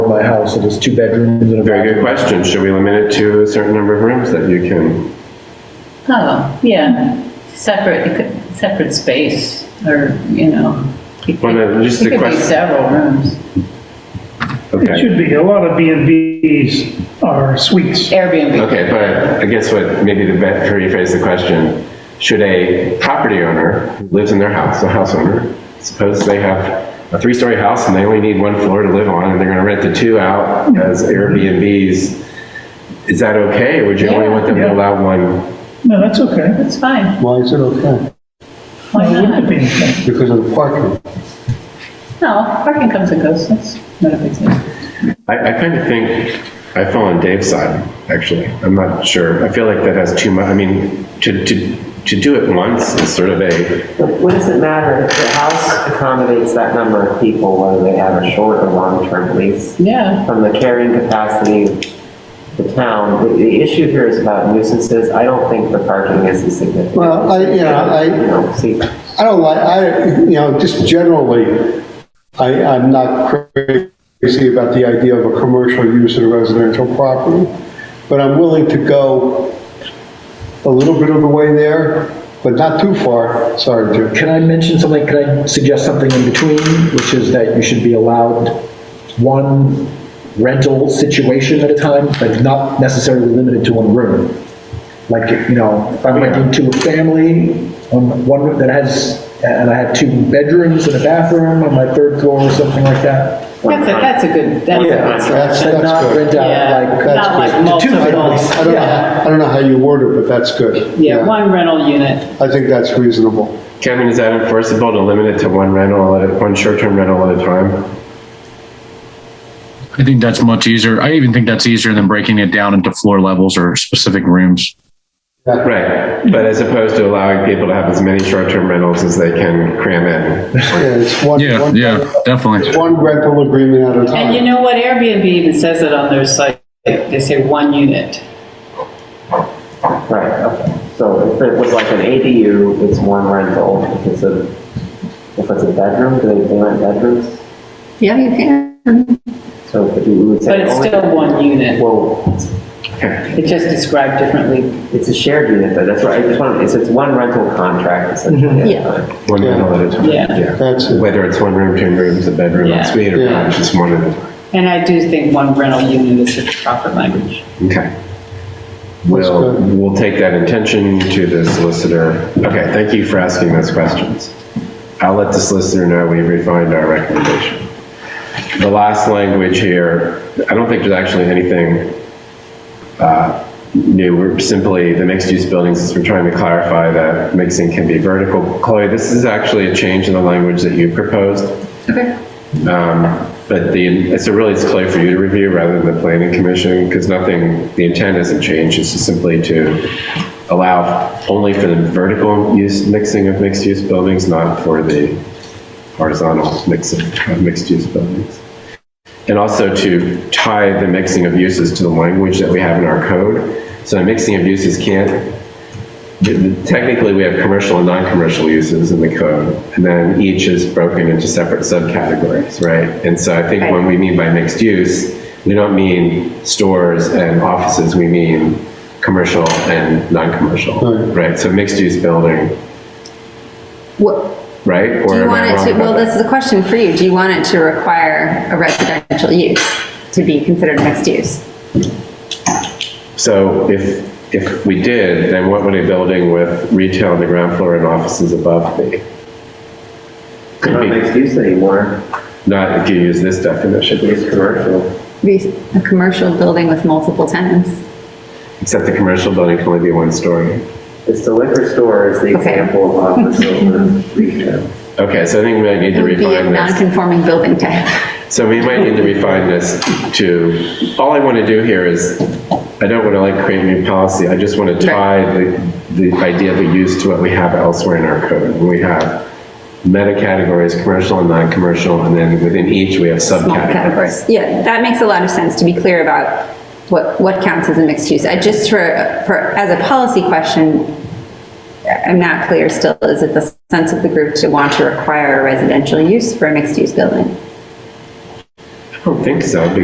house, it is two bedrooms and a Very good question. Should we limit it to a certain number of rooms that you can? Oh, yeah, separate, it could- separate space, or, you know. it Well, could- then, just it the could be quest- several rooms. Okay. It should be, a lot of B and Bs are suites. Airbnb. Okay, but I guess what, maybe the best to rephrase the question, should a property owner who lives in their house, a house owner, suppose they have a three-story house and they only need one floor to live on, and they're gonna rent the two out as Airbnbs, is that okay, or would you only want them to Yeah. allow one? No, that's okay. That's fine, Why is it okay? why Why wouldn't it not? be okay? Because of the parking. No, parking comes and goes, that's not a big deal. I, I kind of think I fall on Dave's side, actually. I'm not sure. I feel like that has too much, I mean, to, to, to do it once is sort of a, But What does it matter if the house accommodates that number of people, whether they have a short or long-term lease? Yeah, From the carrying capacity of the town, the, the issue here is about nuisances. I don't think the parking is a significant. Well, I- nuisance. yeah, I- You know, see, I don't like, I, you know, just generally, I, I'm not crazy about the idea of a commercial use of a residential property, but I'm willing to go a little bit of the way there, but not too far, sorry, Jim. Can I mention something, can I suggest something in between, which is that you should be allowed one rental situation at a time, but not necessarily limited to one room? Like, you know, if I'm renting to a family, um, one that has, and I have two bedrooms and a bathroom on my third floor or something like that, that's a, that's a good, that's a Yeah, good solution. that's, and that's not rent good. Yeah, out like. Not like to two multiple, families. I don't, yeah, I don't know how you word it, but that's good. yeah, one rental unit, I think that's reasonable. Kevin, is that enforceable to limit it to one rental at a, one short-term rental at a time? I think that's much easier. I even think that's easier than breaking it down into floor levels or specific rooms. Right, but as opposed to allowing people to have as many short-term rentals as they can cram in. Yeah, it's one, Yeah, one- yeah, definitely. it's one rental agreement at a time. and you know what, Airbnb even says it on their site, they say one unit. right, okay. So if it was like an ADU, it's one rental. If it's a, if it's a bedroom, do they, they rent bedrooms? Yeah, you can. So if you would say. But it's only- still one unit, Well, it's just described differently. it's a shared unit, though. That's right. I just want, it's, it's one rental contract Mm-hmm. essentially. at a time. One Yeah. rental at a time. Yeah. That's it. Whether it's one room, two rooms, a bedroom, Yeah. a suite, or Yeah. just one at a time. And I do think one rental unit is the proper language. Okay. We'll, good. we'll take that intention to the solicitor. Okay, thank you for asking those questions. I'll let the solicitor know we've refined our recommendation. The last language here, I don't think there's actually anything uh, new. We're simply, the mixed-use buildings, is we're trying to clarify that mixing can be vertical. Chloe, this is actually a change in the language that you proposed. Um, But the, so really, it's clear for you to review rather than the planning commission, because nothing, the intent hasn't changed, it's just simply to allow only for the vertical use, mixing of mixed-use buildings, not for the horizontal mix of of mixed-use buildings. And also to tie the mixing of uses to the language that we have in our code. So the mixing of uses can't Technically, we have commercial and non-commercial uses in the code, and then each is broken into separate subcategories, right? And so I think when we mean by mixed use, we don't mean stores and offices, we mean commercial and non-commercial, right? So mixed-use building, What, right? do Or you am I want it wrong to, about well, that? this is a question for you. Do you want it to require a residential use to be considered mixed use? So if, if we did, then what would a building with retail on the ground floor and offices above be? Could Not be, mixed use anymore. not if you use this definition, It's commercial. Be a commercial building with multiple tenants? except the commercial building can only be one story. It's the liquor store is the Okay. example of office over retail. Okay, so I think we might need It to would be a refine this. non-conforming building type. So we might need to refine this to, all I want to do here is, I don't want to like create new policy. I just want to tie the, the idea of a use to what we have elsewhere in our code. We have meta categories, commercial and non-commercial, and then within each, we have small subcategories. categories. Yeah, that makes a lot of sense to be clear about what, what counts as a mixed use. I just for, for, as a policy question, I'm not clear still, is it the sense of the group to want to require a residential use for a mixed use building? I don't think so,